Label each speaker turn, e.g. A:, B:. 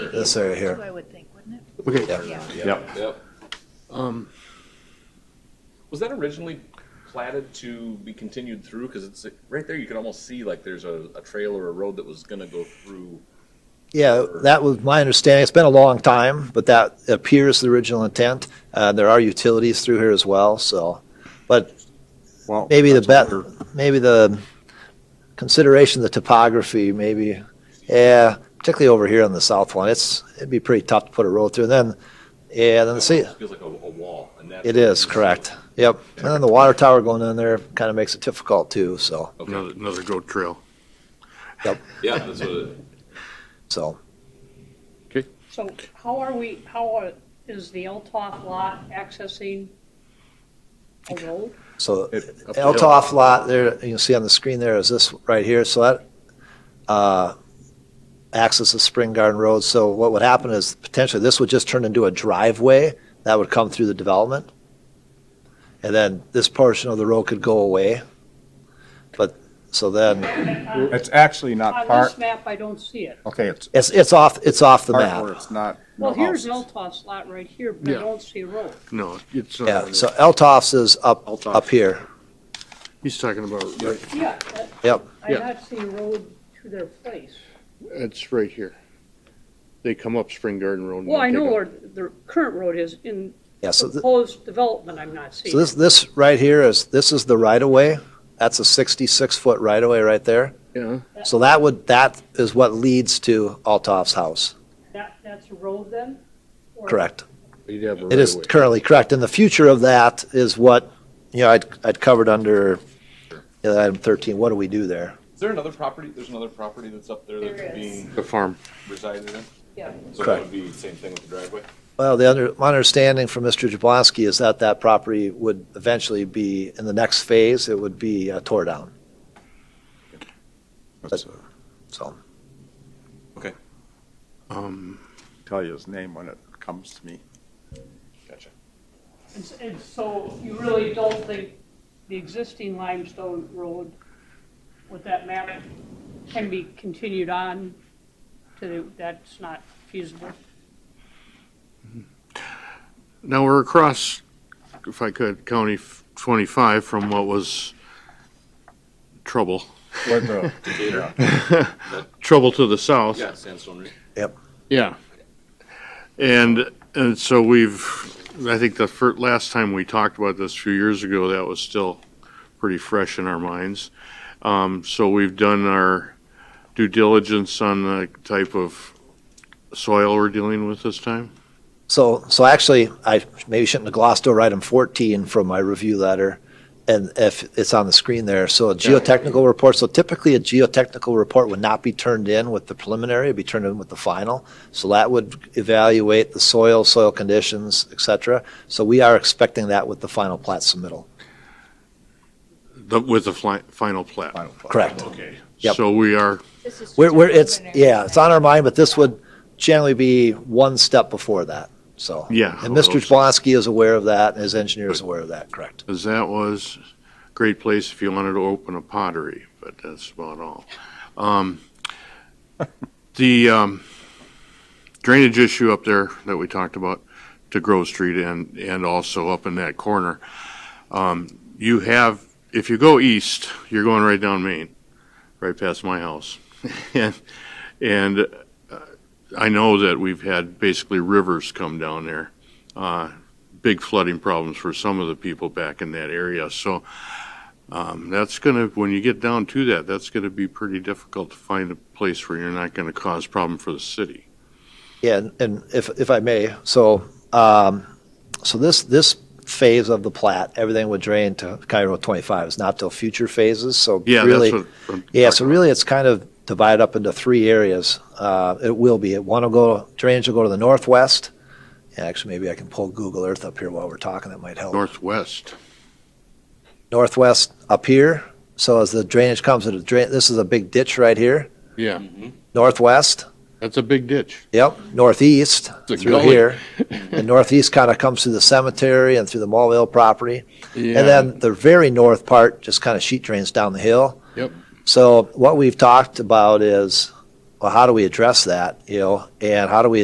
A: This area
B: Two,
A: here.
B: I would think, wouldn't it?
C: Okay.
A: Yep.
B: Yeah.
C: Yep.
D: Yep.
C: Um,
D: Was that originally platted to be continued through? Because it's right there, you can almost see like there's a, a trail or a road that was gonna go through.
A: Yeah, that was my understanding. It's been a long time, but that appears the original intent. Uh, there are utilities through here as well, so. But
C: well,
A: maybe the
C: that's
A: bet,
C: another-
A: maybe the consideration, of the topography, maybe, yeah, particularly over here on the south one, it's, it'd be pretty tough to put a road through. And then, yeah, then the sea,
D: It Feels like a, a wall and that.
A: it is, correct. Yep. And then the water tower going in there kind of makes it difficult too, so,
D: Okay,
C: Another, another goat trail.
D: yeah, that's what it,
A: so.
E: So how are we, how are, is the LTOF lot accessing a road?
A: So
C: It- up the hill.
A: Eltoff lot there, you can see on the screen there is this right here. So that uh, access is Spring Garden Road. So what would happen is potentially this would just turn into a driveway that would come through the development. And then this portion of the road could go away. But, so then,
F: It's actually not
E: On
F: part,
E: this map, I don't see it.
F: okay, it's
A: it's, it's off, it's off the
F: part where
A: map.
F: it's not. no
E: Well, here's
F: houses.
E: LTOF's lot right here, but
C: Yeah.
E: I don't see a road.
C: No, it's not.
A: Yeah, so Eltoff's is up,
C: Eltoff's.
A: up here.
C: He's talking about, right,
E: Yeah. that-
A: Yep.
E: I
C: Yeah.
E: not see a road to their place.
C: it's right here. They come up Spring Garden Road. and
E: Well,
C: they
E: I know
C: take
E: where the current road is in
A: Yeah, so, th-
E: proposed development, I'm not
A: so
E: seeing.
A: this, this right here is, this is the right of way. That's a 66 foot right of way right there.
C: a- Yeah,
A: So that would, that is what leads to Altoff's house,
E: That, that's a road then? Or-
A: correct?
C: you'd have a right
A: It is
C: of way.
A: currently correct, and the future of that is what, you know, I'd, I'd covered under uh, item thirteen, what do we do there?
D: is there another property, there's another property that's up there
E: There
D: that's
E: is.
D: being
C: The farm.
D: resided in?
E: Yeah.
D: So that
A: Correct.
D: would be the same thing with the driveway?
A: Well, the under, my understanding from Mr. Jablonski is that that property would eventually be, in the next phase, it would be uh, tore down,
F: That's, uh,
A: so.
C: Um,
F: Tell you his name when it comes to me.
D: Gotcha.
E: And s- And so you really don't think the existing limestone road with that map can be continued on to, the- that's not feasible?
C: now we're across, if I could, County f- 25 from what was trouble.
F: Where the-
D: Decatur?
C: Trouble to the south.
D: Yeah, Sandstone Ridge.
C: Yeah. And, and so we've, I think the fir, last time we talked about this a few years ago, that was still pretty fresh in our minds. Um, so we've done our due diligence on the type of soil we're dealing with this time.
A: So, so actually, I maybe shouldn't have glossed over item 14 from my review letter, and if it's on the screen there. So a geotechnical report, so typically a geotechnical report would not be turned in with the preliminary, it'd be turned in with the final. So that would evaluate the soil, soil conditions, et cetera. So we are expecting that with the final plat submittal.
C: The, with the fli- final plat.
F: Final plat.
A: Correct.
C: Okay.
A: Yep.
C: So we are,
B: This is
A: We're,
B: just a
A: we're, it's,
B: preliminary
A: yeah, it's
B: thing.
A: on our mind, but this would generally be one step before that, so.
C: Yeah.
A: And Mr. Jablonski is aware of that, and his engineer is aware of that, correct?
C: Because that was a great place if you wanted to open a pottery, but that's about all. Um, The um, drainage issue up there that we talked about to Grove Street and, and also up in that corner. um, You have, if you go east, you're going right down Main, right past my house. And, and uh, I know that we've had basically rivers come down there. Uh, big flooding problems for some of the people back in that area. So um, that's going to, when you get down to that, that's going to be pretty difficult to find a place where you're not going to cause problem for the city.
A: Yeah, and- and if, if I may, so, um, so this, this phase of the plat, everything would drain to County Road 25. It's not till future phases, so
C: Yeah,
A: really.
C: that's what. I'm
A: Yeah,
C: talking
A: so really, it's kind of divided up into three areas. Uh, it will be, one will go, drainage will go to the northwest. Actually, maybe I can pull Google Earth up here while we're talking, that might
C: about.
A: help.
C: Northwest.
A: Northwest up here, so as the drainage comes into drain, this is a big ditch right here.
C: Yeah,
A: Northwest,
C: that's a big ditch.
A: Yep, northeast
C: It's a
A: through
C: gully.
A: here. and northeast kind of comes through the cemetery and through the Mallville property. And then the very north part just kind of sheet drains down the hill.
C: Yep.
A: So what we've talked about is, well, how do we address that, you know, and how do we